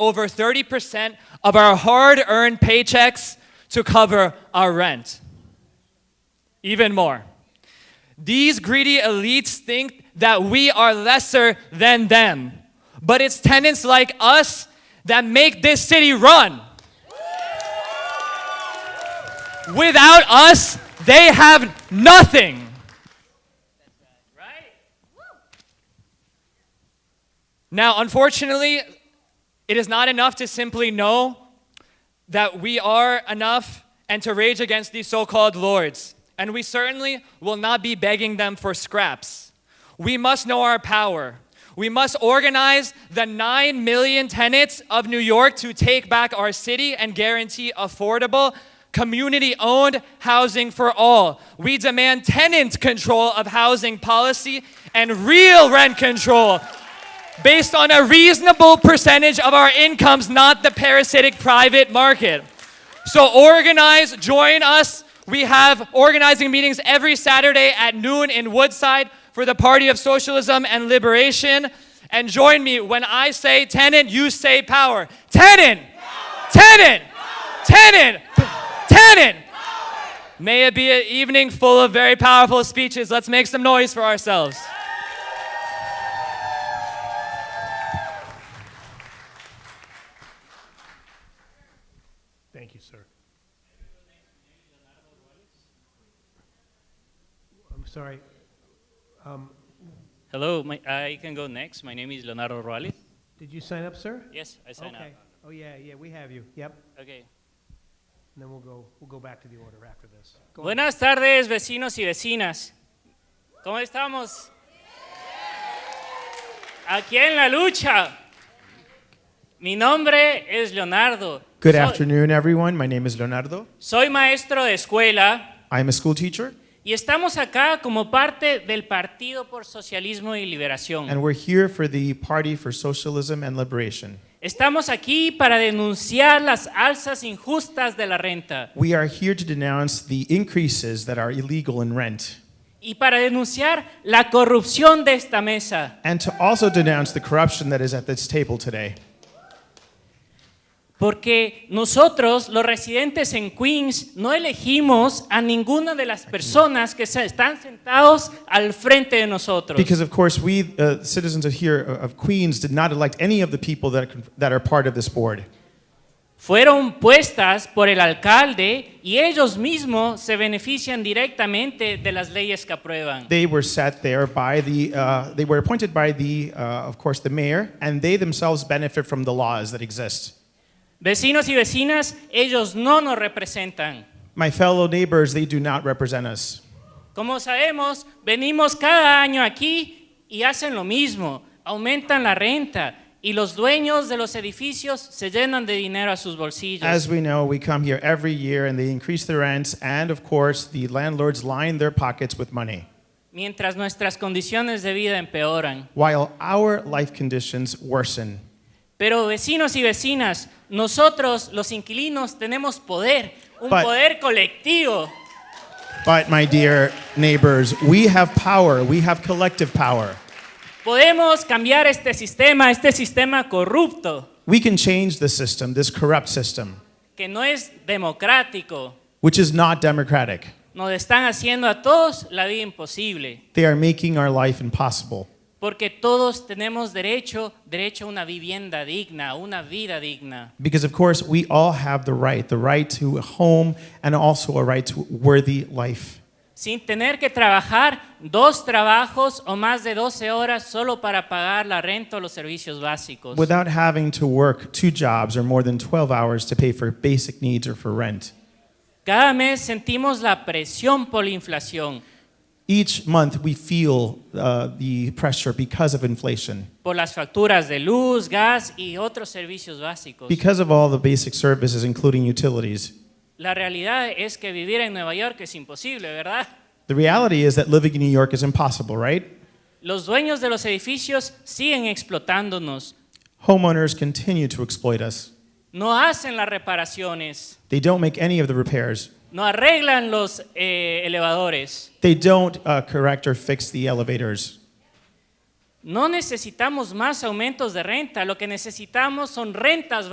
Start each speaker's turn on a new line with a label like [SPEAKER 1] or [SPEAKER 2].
[SPEAKER 1] over 30% of our hard earned paychecks to cover our rent. Even more. These greedy elites think that we are lesser than them, but it's tenants like us that make this city run. Without us, they have nothing. Now, unfortunately, it is not enough to simply know that we are enough and to rage against these so called lords. And we certainly will not be begging them for scraps. We must know our power. We must organize the 9 million tenants of New York to take back our city and guarantee affordable, community owned housing for all. We demand tenant control of housing policy and real rent control based on a reasonable percentage of our incomes, not the parasitic private market. So organize, join us. We have organizing meetings every Saturday at noon in Woodside for the Party of Socialism and Liberation. And join me when I say tenant, you say power. Tenant! Tenant! Tenant! Tenant! May it be an evening full of very powerful speeches. Let's make some noise for ourselves.
[SPEAKER 2] Thank you, sir. I'm sorry.
[SPEAKER 3] Hello, my, I can go next. My name is Leonardo Ruales.
[SPEAKER 2] Did you sign up, sir?
[SPEAKER 3] Yes, I sign
[SPEAKER 2] Okay. Oh, yeah, yeah, we have you. Yep.
[SPEAKER 3] up. Okay.
[SPEAKER 2] And then we'll go, we'll go back to the order after this. Go ahead.
[SPEAKER 3] Buenas tardes, vecinos y vecinas. ¿Cómo estamos? Aquí en la lucha. Mi nombre es Leonardo.
[SPEAKER 4] Good
[SPEAKER 3] Soy-
[SPEAKER 4] afternoon, everyone. My name is Leonardo.
[SPEAKER 3] Soy maestro de escuela
[SPEAKER 4] I'm a school teacher,
[SPEAKER 3] y estamos acá como parte del Partido por Socialismo y Liberación.
[SPEAKER 4] and we're here for the Party for Socialism and Liberation.
[SPEAKER 3] Estamos aquí para denunciar las alzas injustas de la renta
[SPEAKER 4] We are here to denounce the increases that are illegal in rent
[SPEAKER 3] y para denunciar la corrupción de esta mesa.
[SPEAKER 4] and to also denounce the corruption that is at this table today.
[SPEAKER 3] Porque nosotros, los residentes en Queens, no elegimos a ninguna de las personas que se- están sentados al frente de nosotros.
[SPEAKER 4] Because, of course, we, uh, citizens of here uh, of Queens, did not elect any of the people that are, con- that are part of this board.
[SPEAKER 3] Fueron puestas por el alcalde y ellos mismos se benefician directamente de las leyes que aprueban.
[SPEAKER 4] They were set there by the, uh, they were appointed by the, uh, of course, the mayor, and they themselves benefit from the laws that exist.
[SPEAKER 3] Vecinos y vecinas, ellos no nos representan.
[SPEAKER 4] My fellow neighbors, they do not represent us.
[SPEAKER 3] Como sabemos, venimos cada año aquí y hacen lo mismo, aumentan la renta y los dueños de los edificios se llenan de dinero a sus bolsillos.
[SPEAKER 4] As we know, we come here every year and they increase the rents, and of course, the landlords line their pockets with money,
[SPEAKER 3] mientras nuestras condiciones de vida empeoran.
[SPEAKER 4] while our life conditions worsen.
[SPEAKER 3] Pero vecinos y vecinas, nosotros los inquilinos tenemos poder, un
[SPEAKER 4] But-
[SPEAKER 3] poder colectivo.
[SPEAKER 4] But, my dear neighbors, we have power, we have collective power.
[SPEAKER 3] Podemos cambiar este sistema, este sistema corrupto,
[SPEAKER 4] We can change the system, this corrupt system,
[SPEAKER 3] que no es democrático.
[SPEAKER 4] which is not democratic.
[SPEAKER 3] Nos están haciendo a todos la vida imposible,
[SPEAKER 4] They are making our life impossible
[SPEAKER 3] porque todos tenemos derecho, derecho a una vivienda digna, a una vida digna.
[SPEAKER 4] because, of course, we all have the right the right to a home and also a right to worthy life.
[SPEAKER 3] sin tener que trabajar dos trabajos o más de 12 horas solo para pagar la renta o los servicios básicos.
[SPEAKER 4] without having to work two jobs or more than 12 hours to pay for basic needs or for rent.
[SPEAKER 3] Cada mes sentimos la presión por la inflación,
[SPEAKER 4] Each month, we feel uh, the pressure because of inflation,
[SPEAKER 3] por las facturas de luz, gas y otros servicios básicos.
[SPEAKER 4] because of all the basic services, including utilities.
[SPEAKER 3] La realidad es que vivir en Nueva York es imposible, ¿verdad?
[SPEAKER 4] The reality is that living in New York is impossible, right?
[SPEAKER 3] Los dueños de los edificios siguen explotándonos,
[SPEAKER 4] Homeowners continue to exploit us.
[SPEAKER 3] no hacen las reparaciones,
[SPEAKER 4] They don't make any of the repairs.
[SPEAKER 3] no arreglan los eh, elevadores.
[SPEAKER 4] They don't uh, correct or fix the elevators.
[SPEAKER 3] No necesitamos más aumentos de renta, lo que necesitamos son rentas